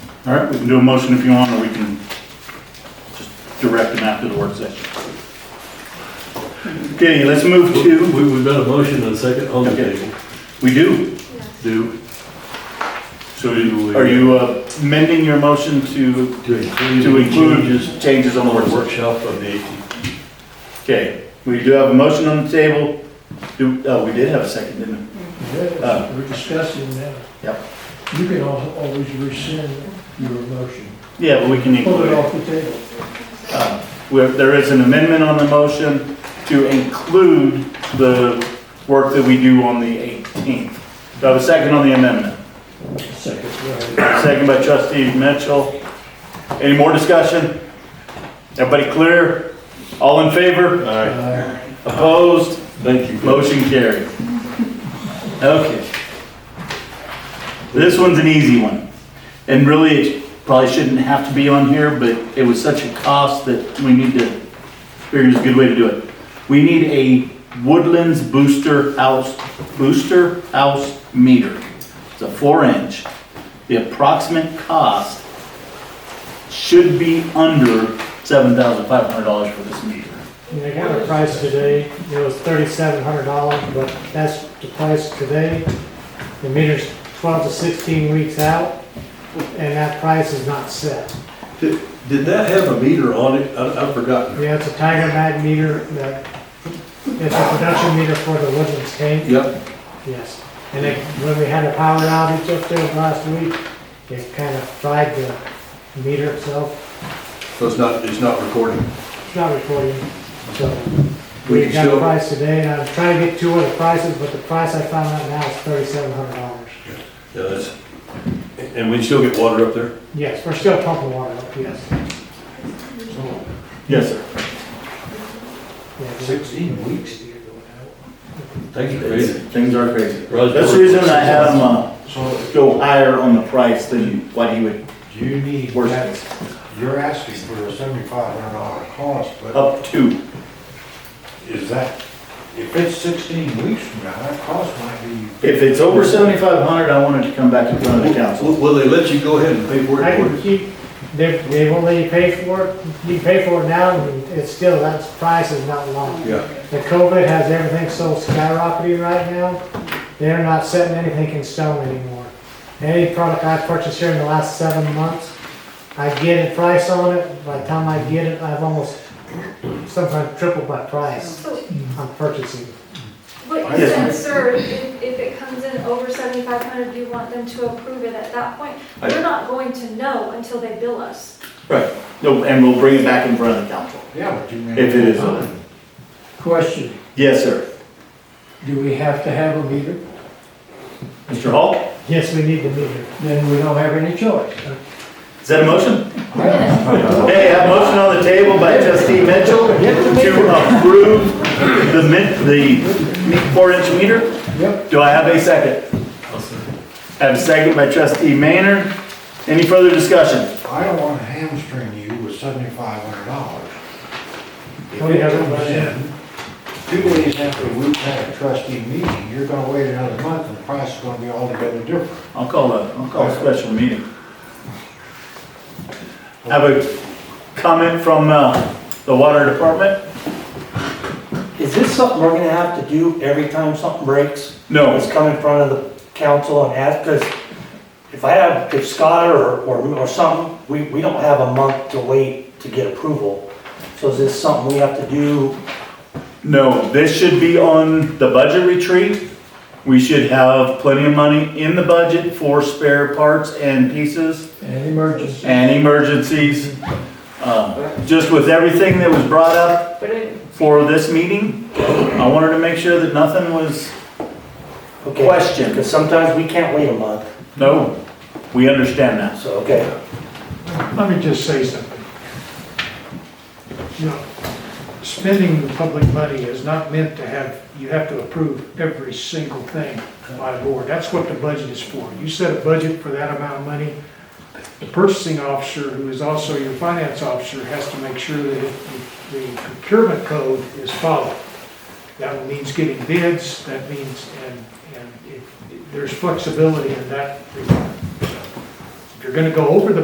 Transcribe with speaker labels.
Speaker 1: All right, we can do a motion if you want, or we can just direct them after the work session. Okay, let's move to,
Speaker 2: We, we've got a motion and a second on the
Speaker 1: Okay.
Speaker 2: table.
Speaker 1: we do.
Speaker 2: Do,
Speaker 1: So are you uh, amending your motion to,
Speaker 2: to include.
Speaker 1: to include
Speaker 2: changes
Speaker 1: changes on the
Speaker 2: On
Speaker 1: work
Speaker 2: the
Speaker 1: session?
Speaker 2: workshop of the eighteenth.
Speaker 1: Okay, we do have a motion on the table. Do, oh, we did have a second, didn't
Speaker 3: Yeah, We're discussing that.
Speaker 1: Yep.
Speaker 3: You can al- always rescind your motion,
Speaker 1: we? Yeah, but we can
Speaker 3: pull
Speaker 1: include
Speaker 3: it
Speaker 1: it.
Speaker 3: off the table.
Speaker 1: Uh, where There is an amendment on the motion to include the work that we do on the 18th. Do I have a second on the amendment?
Speaker 3: Second, right.
Speaker 1: Second by trustee Mitchell. Any more discussion? Everybody clear? All in favor?
Speaker 3: Uh,
Speaker 1: Opposed?
Speaker 2: Thank you.
Speaker 1: Motion carried. Okay. This one's an easy one. And really, it probably shouldn't have to be on here, but it was such a cost that we need to, figure is a good way to do it. We need a Woodlands Booster House, Booster House meter. It's a four inch. The approximate cost should be under seven thousand five hundred dollars for this meter.
Speaker 4: And They got a price today, it was thirty-seven hundred dollars, but that's the price today. The meter's twelve to sixteen weeks out, and that price is not set.
Speaker 2: Did, did that have a meter on it? I, I've forgotten.
Speaker 4: Yeah, it's a Tiger Mag meter that, it's a production meter for the Woodlands tank,
Speaker 2: Yep.
Speaker 4: yes. And it, when we had a power outage up there last week, it kind of fried the meter itself,
Speaker 2: So it's not, it's not recording.
Speaker 4: it's not recording, so.
Speaker 2: We
Speaker 4: We
Speaker 2: can
Speaker 4: got a
Speaker 2: still,
Speaker 4: price today, and I was trying to get two other prices, but the price I found out now is thirty-seven hundred dollars.
Speaker 2: yeah, that's, and we can still get water up there?
Speaker 4: Yes, we're still pumping water up, yes. So,
Speaker 1: Yes, sir.
Speaker 4: yeah,
Speaker 2: Sixteen weeks. Thank you, Craig.
Speaker 1: Things are crazy.
Speaker 2: Roger.
Speaker 1: That's the reason I had him uh, go higher on the price than what he would,
Speaker 5: Do you need,
Speaker 1: Where's-
Speaker 5: that- you're asking for a seventy-five hundred dollar cost, but
Speaker 1: up to.
Speaker 5: is that, if it's sixteen weeks from now, that cost might be.
Speaker 1: If it's over seventy-five hundred, I wanted to come back in front of the council.
Speaker 2: Will, will they let you go ahead and pay for
Speaker 4: I
Speaker 2: it?
Speaker 4: can keep, they, they won't let you pay for it, you can pay for it now, and it's still, that price is not long.
Speaker 2: Yeah,
Speaker 4: The COVID has everything so skyrocketing right now, they're not setting anything in stone anymore. Any product I've purchased here in the last seven months, I get a price on it, by the time I get it, I've almost, sometimes tripled my price
Speaker 6: So,
Speaker 4: on purchasing.
Speaker 6: But you said, sir, if if it comes in over seventy-five hundred, you want them to approve it at that point?
Speaker 1: I-
Speaker 6: We're not going to know until they bill us.
Speaker 1: Right. No, and we'll bring it back in front of the council.
Speaker 5: Yeah, but you may.
Speaker 1: If it is over.
Speaker 3: Question,
Speaker 1: Yes, sir.
Speaker 3: do we have to have a meter?
Speaker 1: Mr. Hall,
Speaker 4: Yes, we need the meter.
Speaker 3: Then we don't have any choice.
Speaker 1: is that a motion? Hey, a motion on the table by trustee Mitchell to approve the min, the four-inch meter.
Speaker 3: Yep,
Speaker 1: Do I have a second? I have a second by trustee Maynard. Any further discussion?
Speaker 5: I don't wanna hamstring you with seventy-five hundred dollars. If
Speaker 4: Oh, yeah,
Speaker 5: it comes
Speaker 4: right.
Speaker 5: in, two days after we've had a trustee meeting, you're gonna wait another month and the price is gonna be altogether different.
Speaker 1: I'll call a, I'll call a special meeting. Have a comment from uh, the water department?
Speaker 7: Is this something we're gonna have to do every time something breaks?
Speaker 1: No.
Speaker 7: Just come in front of the council and ask, because if I have, if Scott or, or, or something, we, we don't have a month to wait to get approval. So is this something we have to do?
Speaker 1: No, this should be on the budget retreat. We should have plenty of money in the budget for spare parts and pieces
Speaker 3: an emergency.
Speaker 1: and emergencies. Uh, Just with everything that was brought up
Speaker 6: But it,
Speaker 1: for this meeting, I wanted to make sure that nothing was,
Speaker 7: Okay.
Speaker 1: Question.
Speaker 7: Because sometimes we can't wait a month,
Speaker 1: no, we understand that.
Speaker 7: so, okay.
Speaker 8: Let me just say something. You know, spending the public money is not meant to have, you have to approve every single thing by board. That's what the budget is for. You set a budget for that amount of money. The purchasing officer, who is also your finance officer, has to make sure that it- the procurement code is followed. That means getting bids, that means, and, and it- there's flexibility in that regard. If you're gonna go over the